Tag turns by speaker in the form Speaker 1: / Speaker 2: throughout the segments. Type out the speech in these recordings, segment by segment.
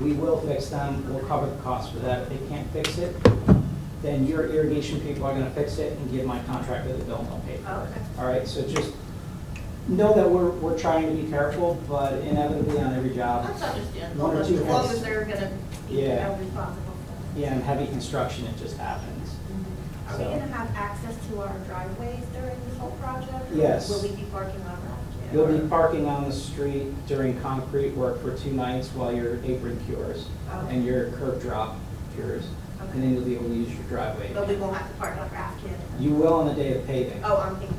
Speaker 1: we will fix them, we'll cover the cost for that. If they can't fix it, then your irrigation people are gonna fix it and give my contractor the bill and they'll pay for
Speaker 2: Oh,
Speaker 3: Okay.
Speaker 1: it. All right, so just know that we're, we're trying to be careful, but inevitably on every job,
Speaker 3: That's understandable,
Speaker 1: One or
Speaker 3: as
Speaker 1: two
Speaker 3: long
Speaker 1: heads.
Speaker 3: as they're gonna be
Speaker 1: Yeah.
Speaker 3: held responsible for
Speaker 1: yeah, in heavy construction, it just happens.
Speaker 3: Mm-hmm.
Speaker 2: Are we
Speaker 1: So-
Speaker 2: gonna have access to our driveways during this whole project?
Speaker 1: Yes.
Speaker 2: Will we be parking on Route two?
Speaker 1: You'll be parking on the street during concrete work for two nights while your apron cures
Speaker 3: Oh.
Speaker 2: Okay.
Speaker 1: and your curb drop cures. And then you'll be able to use your driveway.
Speaker 2: But we won't have to park on Route two?
Speaker 1: You will on the day of paving.
Speaker 2: Oh, I'm thinking,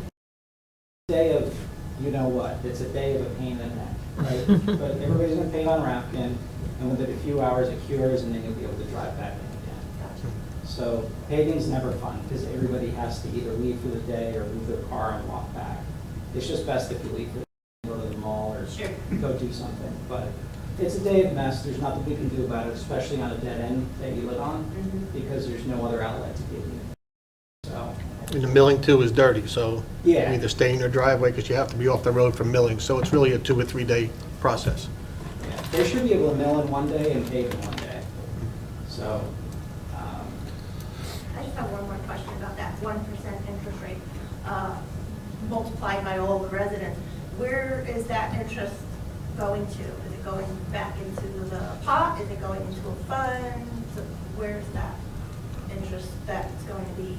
Speaker 1: Day of, you know what, it's a day of a pain in the neck, right? But everybody's gonna paint on Rapkin and within a few hours it cures and then you'll be able to drive back in again.
Speaker 2: gotcha.
Speaker 1: So paving's never fun because everybody has to either leave for the day or move their car and walk back. It's just best if you leave for the day, go to the mall or
Speaker 2: Sure.
Speaker 1: go do something, but it's a day of mess, there's nothing we can do about it, especially on a dead end that you live on,
Speaker 2: Mhm.
Speaker 1: because there's no other outlet to give you. So,
Speaker 4: And the milling too is dirty, so you
Speaker 1: Yeah.
Speaker 4: either stay in your driveway because you have to be off the road for milling, so it's really a two or three-day process.
Speaker 1: yeah, they should be able to mill in one day and pave in one day. So, um,
Speaker 2: I just have one more question about that one percent interest rate uh, multiplied by all the residents. Where is that interest going to? Is it going back into the pot? Is it going into a fund? Where's that interest that's going to be?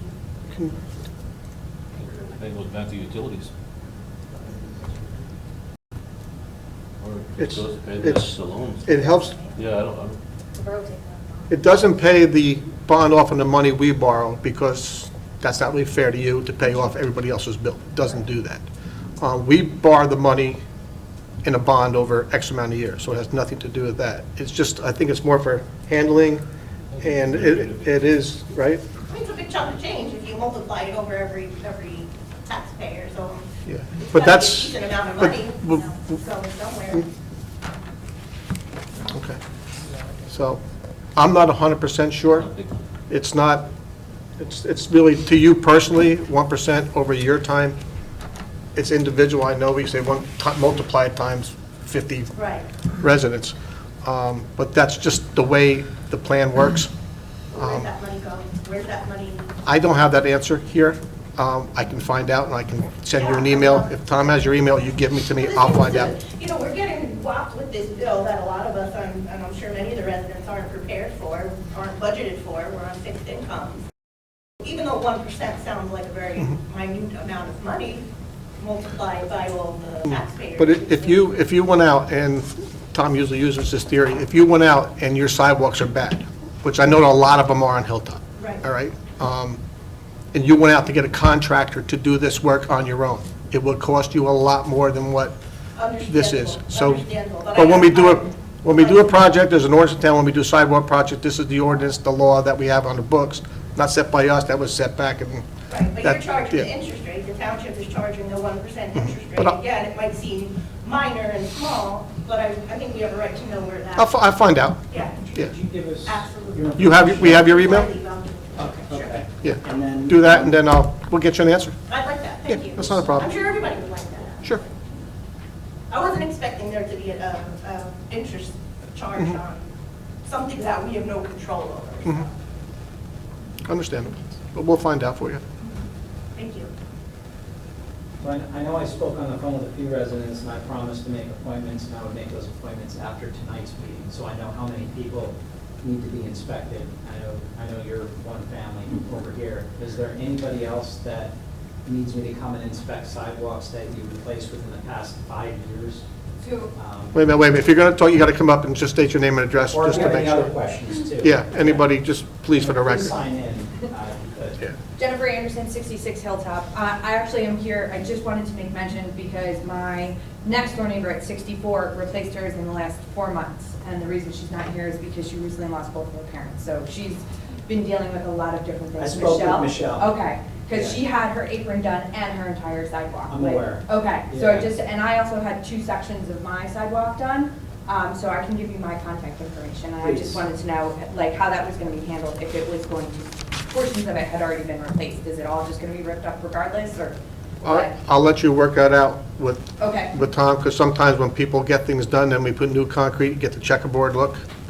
Speaker 5: That goes back to utilities. Or it
Speaker 4: It's-
Speaker 5: goes to pay
Speaker 4: it's-
Speaker 5: the loans.
Speaker 4: It helps,
Speaker 5: Yeah, I don't, I don't,
Speaker 4: it doesn't pay the bond off on the money we borrow because that's not really fair to you to pay off everybody else's bill. It doesn't do that. Uh, We borrow the money in a bond over X amount of years, so it has nothing to do with that. It's just, I think it's more for handling, and it it is, right?
Speaker 2: It's a big chunk of change if you multiply it over every, every taxpayer, so.
Speaker 4: Yeah.
Speaker 2: it's gotta be
Speaker 4: But
Speaker 2: a
Speaker 4: that's-
Speaker 2: Decent amount of
Speaker 4: but-
Speaker 2: money,
Speaker 4: but-
Speaker 2: you know, it's going somewhere.
Speaker 4: Okay. So, I'm not 100%
Speaker 5: I
Speaker 4: sure.
Speaker 5: don't think,
Speaker 4: It's not, it's, it's really to you personally, 1% over your time. It's individual, I know we say one, ti- multiply it times 50
Speaker 2: Right.
Speaker 4: residents. Um, But that's just the way the plan works. um,
Speaker 2: Where's that money going? Where's that money?
Speaker 4: I don't have that answer here. Um, I can find out and I can send you an email. If Tom has your email, you give me to me, I'll find out.
Speaker 2: You know, we're getting whopped with this bill that a lot of us, I'm- and I'm sure many of the residents aren't prepared for, aren't budgeted for, we're on fixed incomes. Even though one percent sounds like a very
Speaker 4: Mm-hmm.
Speaker 2: minute amount of money multiplied by all the taxpayers.
Speaker 4: Mm. But i- if you, if you went out, and Tom usually uses this theory, if you went out and your sidewalks are bad, which I know a lot of them are on Hilltop.
Speaker 2: Right.
Speaker 4: All right? um, And you went out to get a contractor to do this work on your own, it would cost you a lot more than what this is. So,
Speaker 2: Understandable, understandable, but I
Speaker 4: but when we do a,
Speaker 2: don't-
Speaker 4: when we do a project, there's an ordinance in town, when we do sidewalk project, this is the ordinance, the law that we have on the books, not set by us, that was set back in.
Speaker 2: Right, but you're
Speaker 4: that-
Speaker 2: charging the
Speaker 4: yeah. Mm-hmm.
Speaker 2: interest rate, the township is charging the one percent interest rate.
Speaker 4: But I-
Speaker 2: Again, it might seem minor and small, but I, I think we have a right to know where that.
Speaker 4: I'll, fi- I'll find out,
Speaker 2: Yeah,
Speaker 4: yeah.
Speaker 1: could you give us?
Speaker 2: Absolutely.
Speaker 1: your
Speaker 4: You have, we have your email?
Speaker 1: Okay, okay.
Speaker 4: Yeah.
Speaker 1: And then-
Speaker 4: Do that, and then I'll, we'll get you an answer.
Speaker 2: I'd like that,
Speaker 4: Yeah,
Speaker 2: thank you.
Speaker 4: that's not a problem.
Speaker 2: I'm sure everybody would like that.
Speaker 4: Sure.
Speaker 2: I wasn't expecting there to be a, a, a interest charge
Speaker 4: Mm-hmm.
Speaker 2: on something that we have no control over. so,
Speaker 4: Mm-hmm. Understandable. But we'll find out for you.
Speaker 2: Thank you.
Speaker 1: When, I know I spoke on the phone with a few residents, and I promised to make appointments, and I would make those appointments after tonight's meeting, so I know how many people need to be inspected. I know, I know you're one family over here. Is there anybody else that needs me to come and inspect sidewalks that you replaced within the past five years?
Speaker 6: Two.
Speaker 1: Um,
Speaker 4: Wait a minute, wait a minute. If you're going to talk, you got to come up and just state your name and address,
Speaker 1: Or if
Speaker 4: just
Speaker 1: you
Speaker 4: to
Speaker 1: have
Speaker 4: make
Speaker 1: any other
Speaker 4: sure.
Speaker 1: questions, too?
Speaker 4: Yeah, anybody, just please for the
Speaker 1: Please
Speaker 4: record.
Speaker 1: sign in, uh, if you
Speaker 4: Yeah.
Speaker 1: could.
Speaker 6: Jennifer Anderson, 66 Hilltop. Uh, I actually am here, I just wanted to make mention because my next door neighbor at 64 replaced hers in the last four months. And the reason she's not here is because she recently lost both of her parents. So she's been dealing with a lot of different
Speaker 1: I
Speaker 6: things.
Speaker 1: spoke with Michelle.
Speaker 6: Okay, because she had her apron done and her entire sidewalk.
Speaker 1: I'm
Speaker 6: Like,
Speaker 1: aware.
Speaker 6: Okay, so I
Speaker 1: Yeah.
Speaker 6: just, and I also had two sections of my sidewalk done, um, so I can give you my contact information. And I
Speaker 1: Please.
Speaker 6: just wanted to know, like, how that was gonna be handled, if it was going to, portions of it had already been replaced. Is it all just gonna be ripped up regardless, or?
Speaker 4: I'll I'll let you work that out with,
Speaker 6: Okay,
Speaker 4: with Tom, because sometimes when people get things done, then we put new concrete, get the checkerboard look.